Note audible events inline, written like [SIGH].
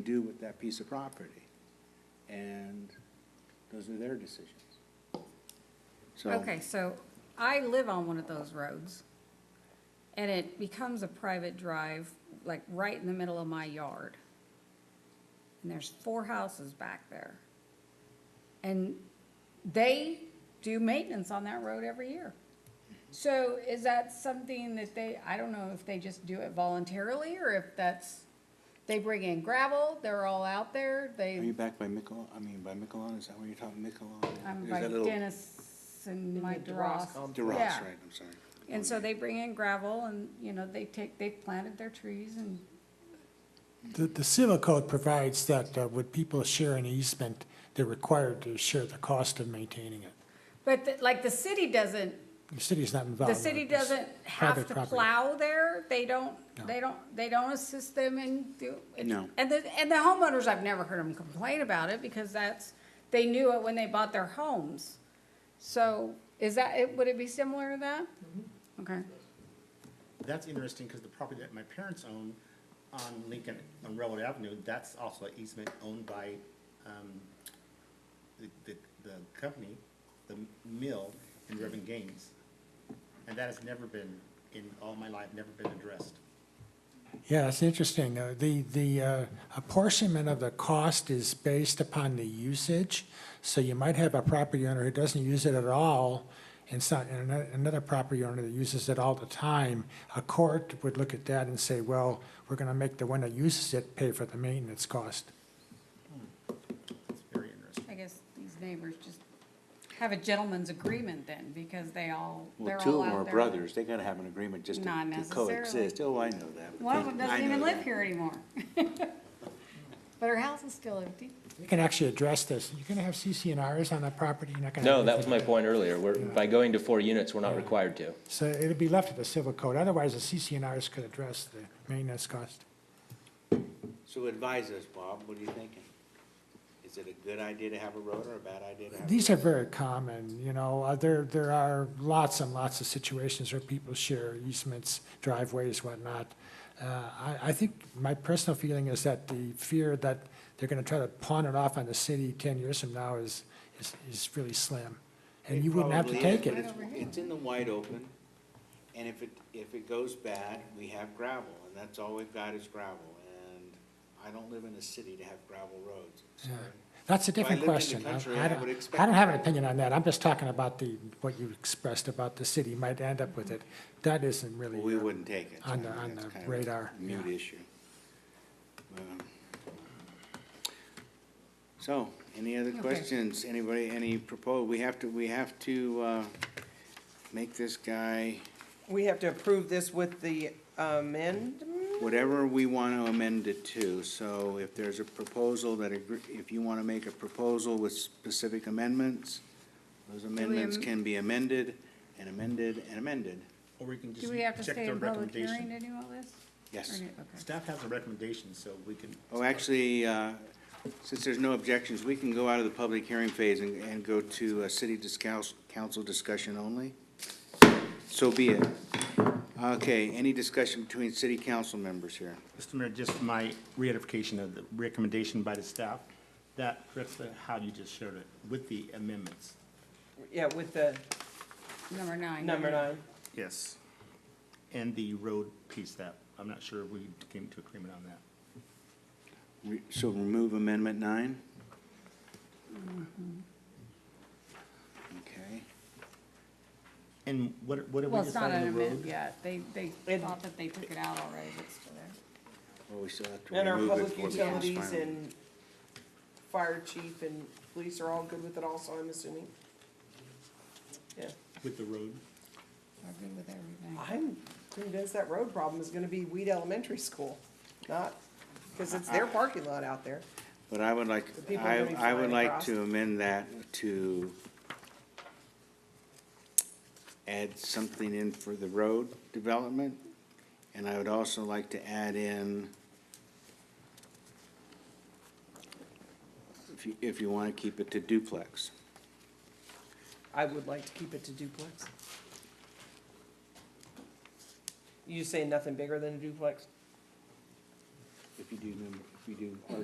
do with that piece of property. And those are their decisions. So, Okay, so I live on one of those roads, and it becomes a private drive, like right in the middle of my yard. And there's four houses back there. And they do maintenance on that road every year. So is that something that they, I don't know if they just do it voluntarily, or if that's, they bring in gravel, they're all out there, are you they, back by Miquelon, I mean, by Miquelon, is that where you're talking, Miquelon? I'm There's by that little- Dennis and Mike DeRoss Dross. compound. DeRoss, Yeah. right, I'm sorry. And so they bring in gravel and, you know, they take, they planted their trees and, The, the civil code provides that uh, when people share an easement, they're required to share the cost of maintaining it. but the- like the city doesn't, The city's not involved. the city in this. doesn't have private to property. plow there. They don't, No. they don't, they don't assist them in do. it- No. And the, and the homeowners, I've never heard them complain about it because that's, they knew it when they bought their homes. So is that, it? would it be similar to that? Okay. That's interesting, because the property that my parents own on Lincoln, on Railroad Avenue, that's also an easement owned by, um, the, the, the company, the mill in Reverend Gaines. And that has never been, in all my life, never been addressed. Yeah, it's interesting. Uh, The, the uh, apportionment of the cost is based upon the usage. So you might have a property owner who doesn't use it at all, and so- and ano- another property owner that uses it all the time. A court would look at that and say, well, we're going to make the one that uses it pay for the maintenance cost. It's very interesting. I guess these neighbors just have a gentleman's agreement then because they all, they're Well, all out two there. of them are brothers, they gotta have an agreement just to Not to necessarily. coexist, oh, I know that. One of them I doesn't know even live that. here anymore. [LAUGHS] But her house is still empty. You can actually address this. You're going to have CCNRs on that property? You're not gonna No, have that was my anything. point earlier. We're, by going to four units, we're not required to. So it'd be left to the civil code. Otherwise, the CCNRs could address the maintenance cost. So advise us, Bob, what are you thinking? Is it a good idea to have a road or a bad idea to have? a These are road? very common, you know, uh, there, there are lots and lots of situations where people share easements, driveways, whatnot. Uh, I, I think my personal feeling is that the fear that they're gonna try to pawn it off on the city ten years from now is, is, is really slim. And you wouldn't have to probably is, take it. but it's- It's in the wide open, and if it, if it goes bad, we have gravel, and that's all we've got is gravel, and I don't live in a city to have gravel roads. Yeah. That's a I lived different in the question. I- country, I I would don't, expect- I don't have an opinion on that. I'm just talking about the, what you expressed about the city might end up with it. That isn't really. Well, we uh, wouldn't take it. On the- I mean, on that's the kind of a radar, Mute yeah. issue. Um, So, any other Okay. questions? Anybody, any proposal? We have to, we have to, uh, make this guy, We have to approve this with the amendment? whatever we want to amend it to. So if there's a proposal that, agree- if you want to make a proposal with specific amendments, those amendments am- can be amended and amended and amended. Or we can just Do we have to check stay their in public hearing recommendation. to do all this? Or Yes. do- okay. Staff has a recommendation, so we can. Oh, actually, uh, since there's no objections, we can go out of the public hearing phase and, and go to a city discuss, council discussion only. So be it. Okay, any discussion between city council members here? Mr. Mayor, just my reiteration of the recommendation by the staff, that, that's how you just shared it, with the amendments. Yeah, with the Number nine. number nine. Yes. And the road piece that, I'm not sure we came to agreement on that. Re- So remove amendment nine? Okay, And what, what did we Well, it's not decide an on the amendment road? yet. They, they It- thought that they took it out already, but it's still there. well, we still have to And our remove it public before it becomes utilities final. and fire chief and police are all good with it also, I'm assuming? Yeah, With the road? We're good with everything. I'm convinced that road problem is gonna be Weed Elementary School, not, because it's their parking lot out there. But I would like, The people I, running I would flying like across. to amend that to add something in for the road development, and I would also like to add in, if you, if you want to keep it to duplex. I would like to keep it to duplex. You say nothing bigger than a duplex? If you do, number- if you do